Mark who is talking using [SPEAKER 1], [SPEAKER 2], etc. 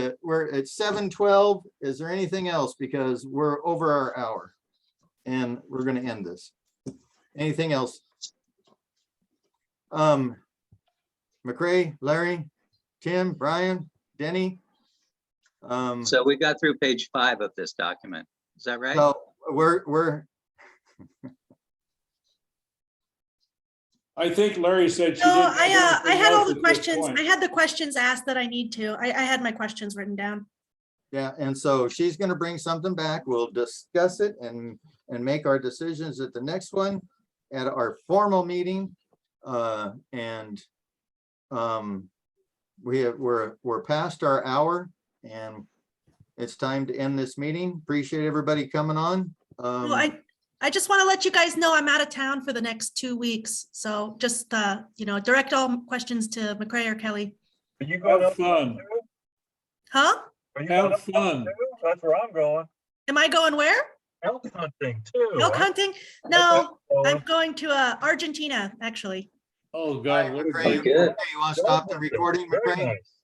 [SPEAKER 1] it. We're at seven twelve. Is there anything else? Because we're over our hour. And we're gonna end this. Anything else? Um, McCray, Larry, Tim, Brian, Denny. Um,
[SPEAKER 2] So we got through page five of this document. Is that right?
[SPEAKER 1] so we're, we're,
[SPEAKER 3] I think Larry said she
[SPEAKER 4] No,
[SPEAKER 3] did.
[SPEAKER 4] I, uh, I had all
[SPEAKER 3] everything else
[SPEAKER 4] the
[SPEAKER 3] at this
[SPEAKER 4] questions.
[SPEAKER 3] point.
[SPEAKER 4] I had the questions asked that I need to. I, I had my questions written down.
[SPEAKER 1] yeah, and so she's gonna bring something back. We'll discuss it and, and make our decisions at the next one. At our formal meeting, uh, and, um, we have, we're, we're past our hour and it's time to end this meeting. Appreciate everybody coming on.
[SPEAKER 4] Well,
[SPEAKER 1] Um,
[SPEAKER 4] I, I just want to let you guys know I'm out of town for the next two weeks. So just, uh, you know, direct all questions to McCray or Kelly.
[SPEAKER 5] Are you going
[SPEAKER 3] Have
[SPEAKER 5] up?
[SPEAKER 3] fun.
[SPEAKER 4] Huh?
[SPEAKER 5] Are you going
[SPEAKER 3] Have
[SPEAKER 5] up?
[SPEAKER 3] fun.
[SPEAKER 5] too? That's where I'm going.
[SPEAKER 4] Am I going where?
[SPEAKER 5] Elk hunting too.
[SPEAKER 4] Elk hunting? No, I'm going
[SPEAKER 5] Going.
[SPEAKER 4] to, uh, Argentina, actually.
[SPEAKER 1] All
[SPEAKER 3] Oh,
[SPEAKER 1] right,
[SPEAKER 3] God. what is
[SPEAKER 1] McCray,
[SPEAKER 3] it?
[SPEAKER 2] Good.
[SPEAKER 1] You wanna stop the recording,
[SPEAKER 5] Very
[SPEAKER 1] McCray?
[SPEAKER 5] nice.